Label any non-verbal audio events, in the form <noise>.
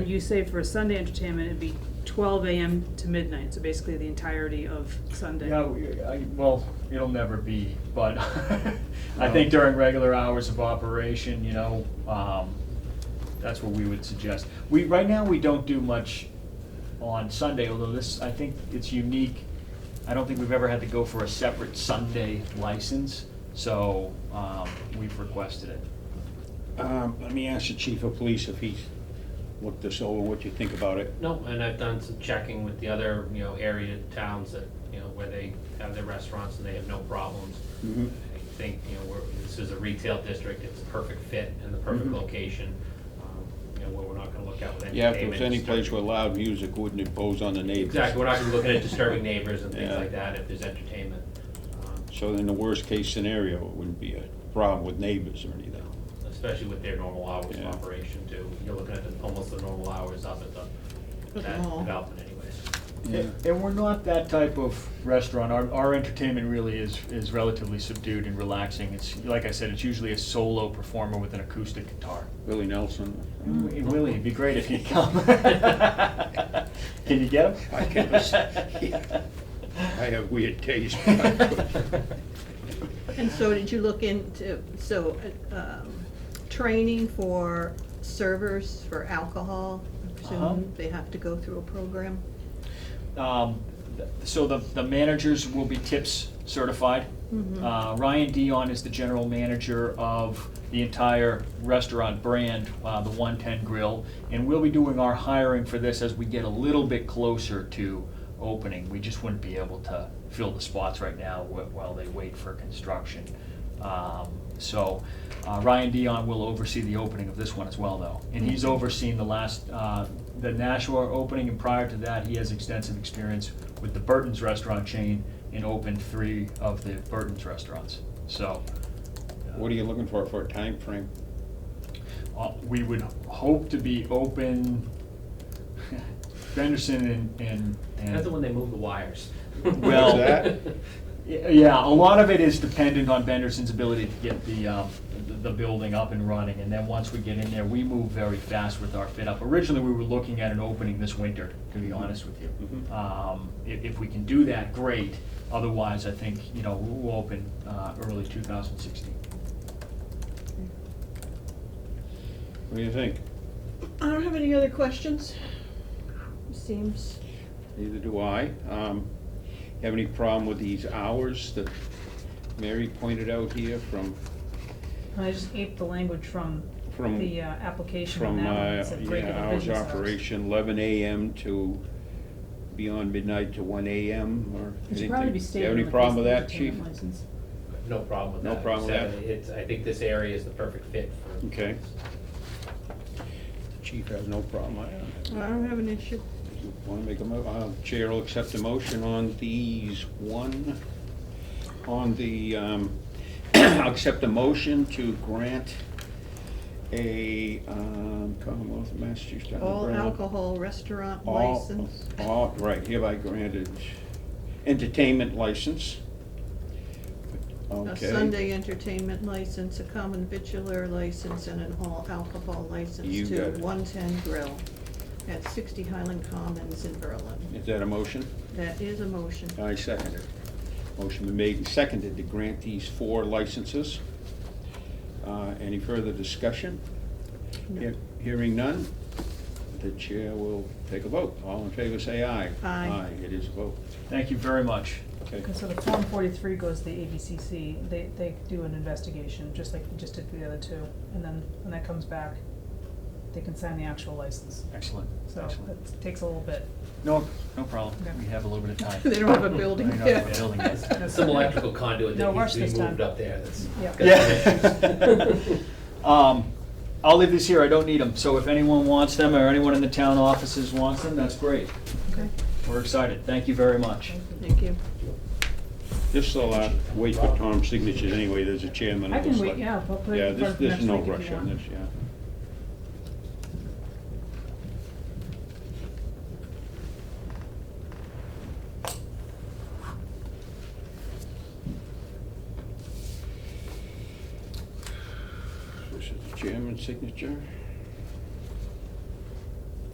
You say for Sunday entertainment, it'd be twelve AM to midnight, so basically the entirety of Sunday. Yeah, we- I, well, it'll never be, but <laughs> I No. think during regular hours of operation, you know, um, that's what we would suggest. We, right now, we don't do much on Sunday, although this, I think it's unique. I don't think we've ever had to go for a separate Sunday license, so, um, we've requested it. Um, let me ask the chief of police if he's looked this over, what you think about it. No, and I've done some checking with the other, you know, area towns that, you know, where they have their restaurants and they have no problems. Mhm. I think, you know, we're, this is a retail district, it's a perfect fit and the perfect Mhm. location, um, you know, where we're not gonna look out with any Yeah, if there was any place disturbing- where loud music wouldn't impose on the neighbors. Exactly, we're not gonna be looking at disturbing neighbors and things Yeah. like that if there's entertainment. um, So in the worst case scenario, it wouldn't be a problem with neighbors or anything. Especially with their normal hours of Yeah. operation too, you're looking at the, almost the normal hours up at the, At the that mall. development <laughs> anyways. <laughs> Yeah. And and we're not that type of restaurant. Our, our entertainment really is, is relatively subdued and relaxing. It's, like I said, it's usually a solo performer with an acoustic guitar. Willie Nelson. Mm. Hey, Willie, it'd be great if <laughs> you'd come. <laughs> Can you get him? <laughs> I can listen. I have weird <laughs> taste. And so did you look into, so, um, training for servers for alcohol? I Uh-huh. presume they have to go through a program? Um, th- So the, the managers will be TIPS certified. Mhm. Uh, Ryan Dion is the general manager of the entire restaurant brand, uh, the 110 Grill. And we'll be doing our hiring for this as we get a little bit closer to opening. We just wouldn't be able to fill the spots right now wh- while they wait for construction. Um, So uh, Ryan Dion will oversee the opening of this one as well, though. And he's overseen the last, uh, the Nashua opening, and prior to that, he has extensive experience with the Burton's Restaurant chain and opened three of the Burton's restaurants. So What are you looking for, for a time frame? uh, we would hope to be open, <laughs> Benderson and- and. and- That's the one they move the wires. <laughs> Well- that? Y- Yeah, a lot of it is dependent on Benderson's ability to get the, um, the- the building up and running, and then once we get in there, we move very fast with our fit up. Originally, we were looking at an opening this winter, to be honest with you. Mhm. Um, if, if we can do that, great, otherwise, I think, you know, we'll open, uh, early two thousand sixteen. What do you think? I don't have any other questions. Seems, Neither do I. Um, have any problem with these hours that Mary pointed out here from, I just aped the language from From- the uh, application on from, that one. uh, It said break yeah, of hours business of operation, eleven AM to beyond midnight to one AM or anything? It should probably be You stated have on any the problem with business that, chief? entertainment license. <laughs> No problem with No that. problem with Except It's, I think this area is the perfect fit for. Okay. Chief has no problem, I don't. I don't have an issue. You Wanna make a mo, uh, chair will accept a motion on these one, on the, um, <clears throat> I'll accept a motion to grant a, um, Commonwealth of Massachusetts. All umbrella- alcohol restaurant all- license. All, right, hereby granted entertainment license. A Okay. Sunday entertainment license, a common vitular license, and an all alcohol You license got to it. one-ten grill at sixty Highland Commons in Berlin. Is that a motion? That is a motion. I second it. Motion been made and seconded to grant these four licenses. Uh, Any further discussion? No. Hear- Hearing none, the chair will take a vote. All in favor, say aye. Aye. Aye, it is a vote. Thank you very much. Okay. Okay, so the Form forty-three goes to the ABCC, they, they do an investigation, just like you just did for the other two, and then when that comes back, they can sign the actual license, Excellent, so excellent. it takes a little bit. No, no problem. Okay. We have a little bit of <laughs> time. They don't have a building Right, not yet. a building yet. There's Some electrical conduit No that needs rush to be this time. moved up there, that's. Yeah. got some Yeah. <laughs> issues. <laughs> Um, I'll leave these here, I don't need them, so if anyone wants them, or anyone in the town offices wants them, that's great. Okay. We're excited, thank you very much. Thank you. This will uh, wait for Tom's signatures anyway, there's a chairman. I of can the wait, select- yeah, I'll put it Yeah, in this, front for this next is no week if rush you on want. this, yeah. This is the chairman's signature.